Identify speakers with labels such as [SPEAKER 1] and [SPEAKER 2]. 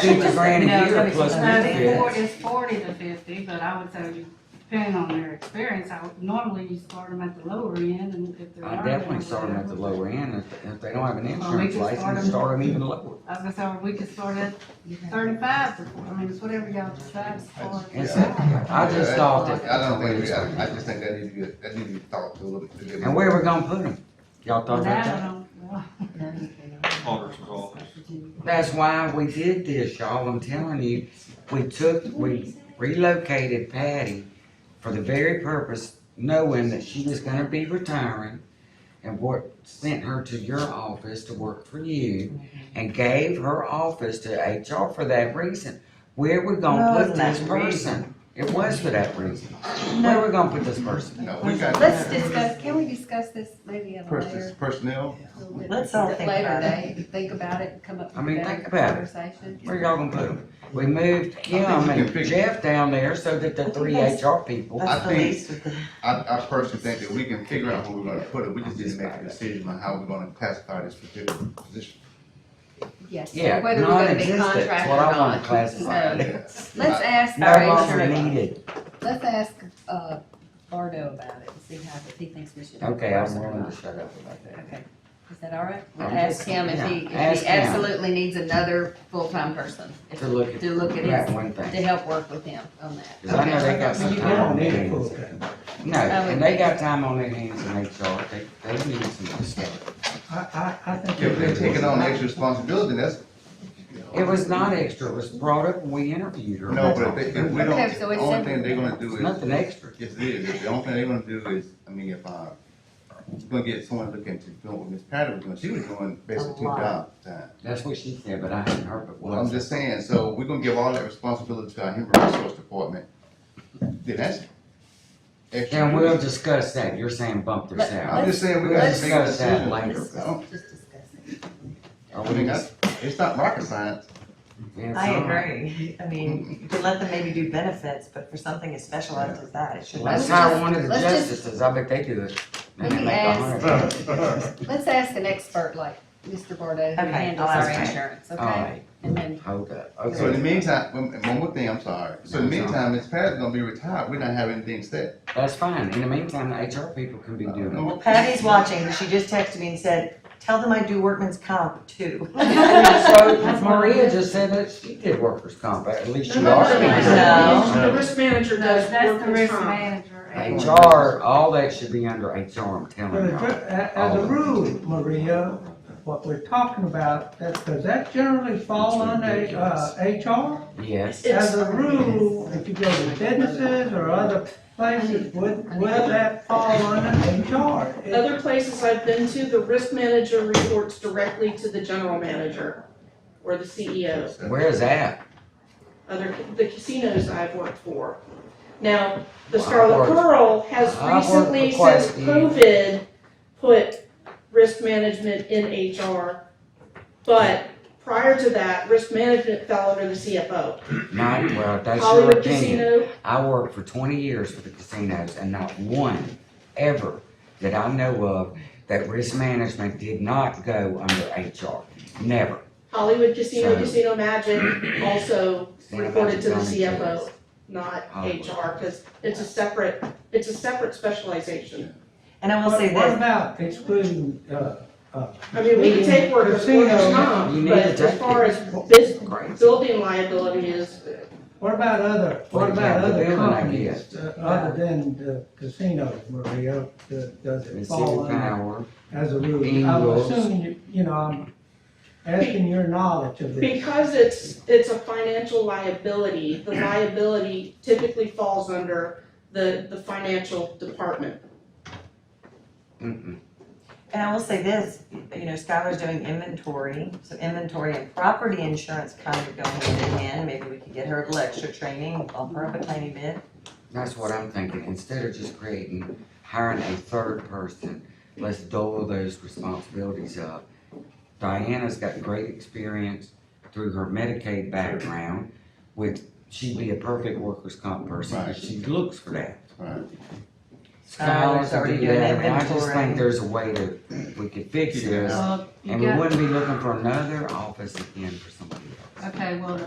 [SPEAKER 1] Fifty grand
[SPEAKER 2] No,
[SPEAKER 1] a
[SPEAKER 2] it's
[SPEAKER 1] year
[SPEAKER 2] gonna be
[SPEAKER 1] plus
[SPEAKER 2] something
[SPEAKER 3] Uh,
[SPEAKER 2] like that.
[SPEAKER 3] it's four-
[SPEAKER 1] benefits.
[SPEAKER 3] it's forty to fifty, but I would say, depending on their experience, I would, normally you start them at the lower end and if they're.
[SPEAKER 1] I
[SPEAKER 3] not
[SPEAKER 1] definitely
[SPEAKER 3] gonna
[SPEAKER 1] start them at the
[SPEAKER 3] work,
[SPEAKER 1] lower end, if, if they don't have
[SPEAKER 3] Or
[SPEAKER 1] an
[SPEAKER 3] we
[SPEAKER 1] insurance
[SPEAKER 3] can start
[SPEAKER 1] license,
[SPEAKER 3] them-
[SPEAKER 1] start them even lower.
[SPEAKER 3] I was gonna say, or we could start at thirty-five to forty, I mean, it's whatever y'all decide as far
[SPEAKER 1] It's-
[SPEAKER 3] as.
[SPEAKER 1] I just thought that.
[SPEAKER 4] I don't think, we- I, I just think that needs to be, that needs to be thought to a little bit. to get-
[SPEAKER 1] And where we gonna put them? Y'all thought about
[SPEAKER 3] That, I
[SPEAKER 1] that?
[SPEAKER 3] don't, well,
[SPEAKER 5] Auditor's office.
[SPEAKER 1] That's why we did this, y'all, I'm telling you, we took, we relocated Patty for the very purpose, knowing that she was gonna be retiring, and what, sent her to your office to work for
[SPEAKER 2] Mm-hmm.
[SPEAKER 1] you, and gave her office to HR for that reason. Where we
[SPEAKER 2] No,
[SPEAKER 1] gonna put
[SPEAKER 2] it's not
[SPEAKER 1] this
[SPEAKER 2] the
[SPEAKER 1] person? It was for that reason. Where we gonna put this person?
[SPEAKER 4] No, we got.
[SPEAKER 6] Let's discuss, can we discuss this maybe at a
[SPEAKER 4] Persons-
[SPEAKER 6] later?
[SPEAKER 4] Personnel,
[SPEAKER 2] Let's all think about
[SPEAKER 6] Later day, think about it, come up
[SPEAKER 1] I
[SPEAKER 6] with
[SPEAKER 1] mean,
[SPEAKER 6] a better
[SPEAKER 1] think about it.
[SPEAKER 6] conversation.
[SPEAKER 1] Where y'all gonna put them? We moved Kim
[SPEAKER 4] I think we can
[SPEAKER 1] and
[SPEAKER 4] figure-
[SPEAKER 1] Jeff down there so that the
[SPEAKER 2] think
[SPEAKER 1] three
[SPEAKER 2] that's-
[SPEAKER 1] HR people.
[SPEAKER 2] That's the
[SPEAKER 4] I think-
[SPEAKER 2] least with the,
[SPEAKER 4] I, I personally think that we can figure out where we're gonna put it, we just need to make a decision on how we're gonna classify this particular position.
[SPEAKER 6] Yes, so
[SPEAKER 1] Yeah,
[SPEAKER 6] whether we're gonna be
[SPEAKER 1] non-existent, is
[SPEAKER 6] contracted or
[SPEAKER 1] what I wanna
[SPEAKER 6] not.
[SPEAKER 1] classify
[SPEAKER 6] No.
[SPEAKER 1] it.
[SPEAKER 4] Let's
[SPEAKER 6] Let's ask
[SPEAKER 1] No
[SPEAKER 6] our
[SPEAKER 1] longer
[SPEAKER 6] HR,
[SPEAKER 1] needed.
[SPEAKER 6] let's ask, uh, Bardo about it, and see how, if he thinks we should.
[SPEAKER 1] Okay, I'm
[SPEAKER 6] endorse it or
[SPEAKER 1] willing
[SPEAKER 6] not.
[SPEAKER 1] to shut up about that.
[SPEAKER 6] Okay, is that all right? We'll
[SPEAKER 1] I'm
[SPEAKER 6] ask
[SPEAKER 1] just-
[SPEAKER 6] him if he,
[SPEAKER 1] yeah, ask
[SPEAKER 6] if he
[SPEAKER 1] him.
[SPEAKER 6] absolutely needs another full-time person. if-
[SPEAKER 1] To look at
[SPEAKER 6] To look at
[SPEAKER 1] that
[SPEAKER 6] his,
[SPEAKER 1] one
[SPEAKER 6] to
[SPEAKER 1] thing.
[SPEAKER 6] help work with him on that.
[SPEAKER 1] Cause I know
[SPEAKER 6] Okay.
[SPEAKER 1] they got some
[SPEAKER 2] You
[SPEAKER 1] time on
[SPEAKER 2] don't
[SPEAKER 1] their
[SPEAKER 2] need
[SPEAKER 1] hands. No, and they got time on their hands in HR. They, they need some stuff.
[SPEAKER 7] I, I, I think.
[SPEAKER 4] If they're taking on extra responsibility, that's,
[SPEAKER 1] It was not extra. It was brought up when we interviewed her.
[SPEAKER 4] no, but if they, if we
[SPEAKER 6] Okay,
[SPEAKER 4] don't,
[SPEAKER 6] so
[SPEAKER 4] the
[SPEAKER 6] it's
[SPEAKER 4] only
[SPEAKER 6] simple.
[SPEAKER 4] thing they're gonna do
[SPEAKER 1] It's
[SPEAKER 4] is.
[SPEAKER 1] nothing extra.
[SPEAKER 4] Yes, it is. The only thing they're gonna do is, I mean, if, uh, it's gonna get someone looking to do what Miss Patty was doing, she was doing basically two
[SPEAKER 2] lot.
[SPEAKER 4] jobs at the time.
[SPEAKER 1] That's what she said, but I hadn't heard it
[SPEAKER 4] Well, I'm
[SPEAKER 1] once.
[SPEAKER 4] just saying, so we're gonna give all that responsibility to our human resource department. Then that's. extra
[SPEAKER 1] And we'll
[SPEAKER 4] duty.
[SPEAKER 1] discuss that. You're saying bump their
[SPEAKER 6] Let-
[SPEAKER 4] I'm
[SPEAKER 1] salary.
[SPEAKER 4] just saying, we gotta
[SPEAKER 1] Let's
[SPEAKER 4] make a
[SPEAKER 1] discuss that
[SPEAKER 4] decision.
[SPEAKER 1] later.
[SPEAKER 6] Let's
[SPEAKER 4] Oh.
[SPEAKER 6] Just discuss it.
[SPEAKER 1] Are
[SPEAKER 4] I
[SPEAKER 1] we
[SPEAKER 4] mean,
[SPEAKER 1] just-
[SPEAKER 4] that's, it's not rocket science.
[SPEAKER 1] yeah,
[SPEAKER 2] I
[SPEAKER 1] it's all right.
[SPEAKER 2] agree. I mean, you could let them maybe do benefits, but for something as specialized as that, it should.
[SPEAKER 1] That's
[SPEAKER 6] Let's
[SPEAKER 1] how
[SPEAKER 6] just-
[SPEAKER 1] one of the
[SPEAKER 6] let's just-
[SPEAKER 1] justices, I bet they do it. They
[SPEAKER 6] Let me
[SPEAKER 1] make a hundred.
[SPEAKER 6] Let's ask an expert like Mr. Bordeaux who
[SPEAKER 2] Okay,
[SPEAKER 6] handles
[SPEAKER 2] I'll
[SPEAKER 6] our
[SPEAKER 2] ask him.
[SPEAKER 6] insurance,
[SPEAKER 1] All
[SPEAKER 6] okay?
[SPEAKER 1] right,
[SPEAKER 6] And then,
[SPEAKER 1] hold up.
[SPEAKER 4] So in the
[SPEAKER 1] Okay,
[SPEAKER 4] meantime, one one more thing, I'm sorry. So in the meantime, Miss Patty's gonna be retired. We're not having anything set.
[SPEAKER 1] that's fine. In the meantime, the HR people can be doing it.
[SPEAKER 2] Well, Patty's watching, she just texted me and said, tell them I do workman's comp too.
[SPEAKER 1] So Maria just said that she did workers' comp, at least she
[SPEAKER 2] No.
[SPEAKER 1] are.
[SPEAKER 8] The risk manager does
[SPEAKER 3] That's the
[SPEAKER 8] workers'
[SPEAKER 3] risk
[SPEAKER 8] comp.
[SPEAKER 3] manager. and-
[SPEAKER 1] HR, all that should be under HR, I'm telling you.
[SPEAKER 7] As a rule, Maria, what we're talking about, that, does that generally fall under, uh, HR?
[SPEAKER 1] Yes,
[SPEAKER 7] As a rule, if you go to businesses or other places, would, will that fall under HR? It-
[SPEAKER 8] Other places I've been to, the risk manager reports directly to the general manager or the CEO.
[SPEAKER 1] where is that?
[SPEAKER 8] Other, the casinos I've worked for. Now, the
[SPEAKER 1] Well, I
[SPEAKER 8] Scarlet
[SPEAKER 1] worked-
[SPEAKER 8] Pearl has
[SPEAKER 1] I worked for
[SPEAKER 8] recently,
[SPEAKER 1] quite a
[SPEAKER 8] since
[SPEAKER 1] few.
[SPEAKER 8] COVID, put risk management in HR. But prior to that, risk management fell under the CFO.
[SPEAKER 1] Not, well, that's your
[SPEAKER 8] Hollywood
[SPEAKER 1] opinion.
[SPEAKER 8] Casino,
[SPEAKER 1] I worked for twenty years for the casinos and not one ever that I know of that risk management did not go under HR. Never.
[SPEAKER 8] Hollywood Casino,
[SPEAKER 1] So-
[SPEAKER 8] Casino Magic also
[SPEAKER 1] Casino
[SPEAKER 8] reported to the
[SPEAKER 1] Magic's own
[SPEAKER 8] CFO,
[SPEAKER 1] kids.
[SPEAKER 8] not
[SPEAKER 1] Hollywood.
[SPEAKER 8] HR, because it's a separate, it's a separate specialization.
[SPEAKER 2] And I will
[SPEAKER 7] What
[SPEAKER 2] say
[SPEAKER 7] what
[SPEAKER 2] this,
[SPEAKER 7] about excluding, uh, uh?
[SPEAKER 8] I mean, we can take workers' workers'
[SPEAKER 7] Casino,
[SPEAKER 1] you
[SPEAKER 8] comp,
[SPEAKER 1] need
[SPEAKER 8] but
[SPEAKER 1] to
[SPEAKER 8] as
[SPEAKER 1] take
[SPEAKER 8] far
[SPEAKER 1] it.
[SPEAKER 8] as this
[SPEAKER 1] Great.
[SPEAKER 8] building liability is,
[SPEAKER 7] What about other,
[SPEAKER 1] Well,
[SPEAKER 7] what
[SPEAKER 1] yeah,
[SPEAKER 7] about
[SPEAKER 1] the
[SPEAKER 7] other
[SPEAKER 1] building
[SPEAKER 7] companies, uh, other than the casinos, Maria, the- does it
[SPEAKER 1] Mississippi
[SPEAKER 7] fall under
[SPEAKER 1] Power.
[SPEAKER 7] as a rule?
[SPEAKER 1] Being
[SPEAKER 7] I'm
[SPEAKER 1] rules.
[SPEAKER 7] assuming, you- you know, I'm asking your knowledge of this.
[SPEAKER 8] because it's, it's a financial liability, the liability typically falls under the, the financial department.
[SPEAKER 1] Mm-mm.
[SPEAKER 2] and I will say this, you know, Skylar's doing inventory, so inventory and property insurance kind of go hand in hand. Maybe we could get her a little extra training, bump her up a tiny bit.
[SPEAKER 1] That's what I'm thinking. Instead of just creating, hiring a third person, let's dole those responsibilities up. Diana's got great experience through her Medicaid background, which she'd be a perfect workers' comp person,
[SPEAKER 4] Right.
[SPEAKER 1] but she looks for that.
[SPEAKER 4] Right.
[SPEAKER 1] Skylar's
[SPEAKER 2] Skylar's already
[SPEAKER 1] do
[SPEAKER 2] doing
[SPEAKER 1] that, and I just
[SPEAKER 2] inventory.
[SPEAKER 1] think there's a way to, we could fix
[SPEAKER 4] Figure it
[SPEAKER 1] this,
[SPEAKER 4] out.
[SPEAKER 3] Well, you
[SPEAKER 1] and we
[SPEAKER 3] got-
[SPEAKER 1] wouldn't be looking for another office again for somebody else.
[SPEAKER 3] Okay, well, the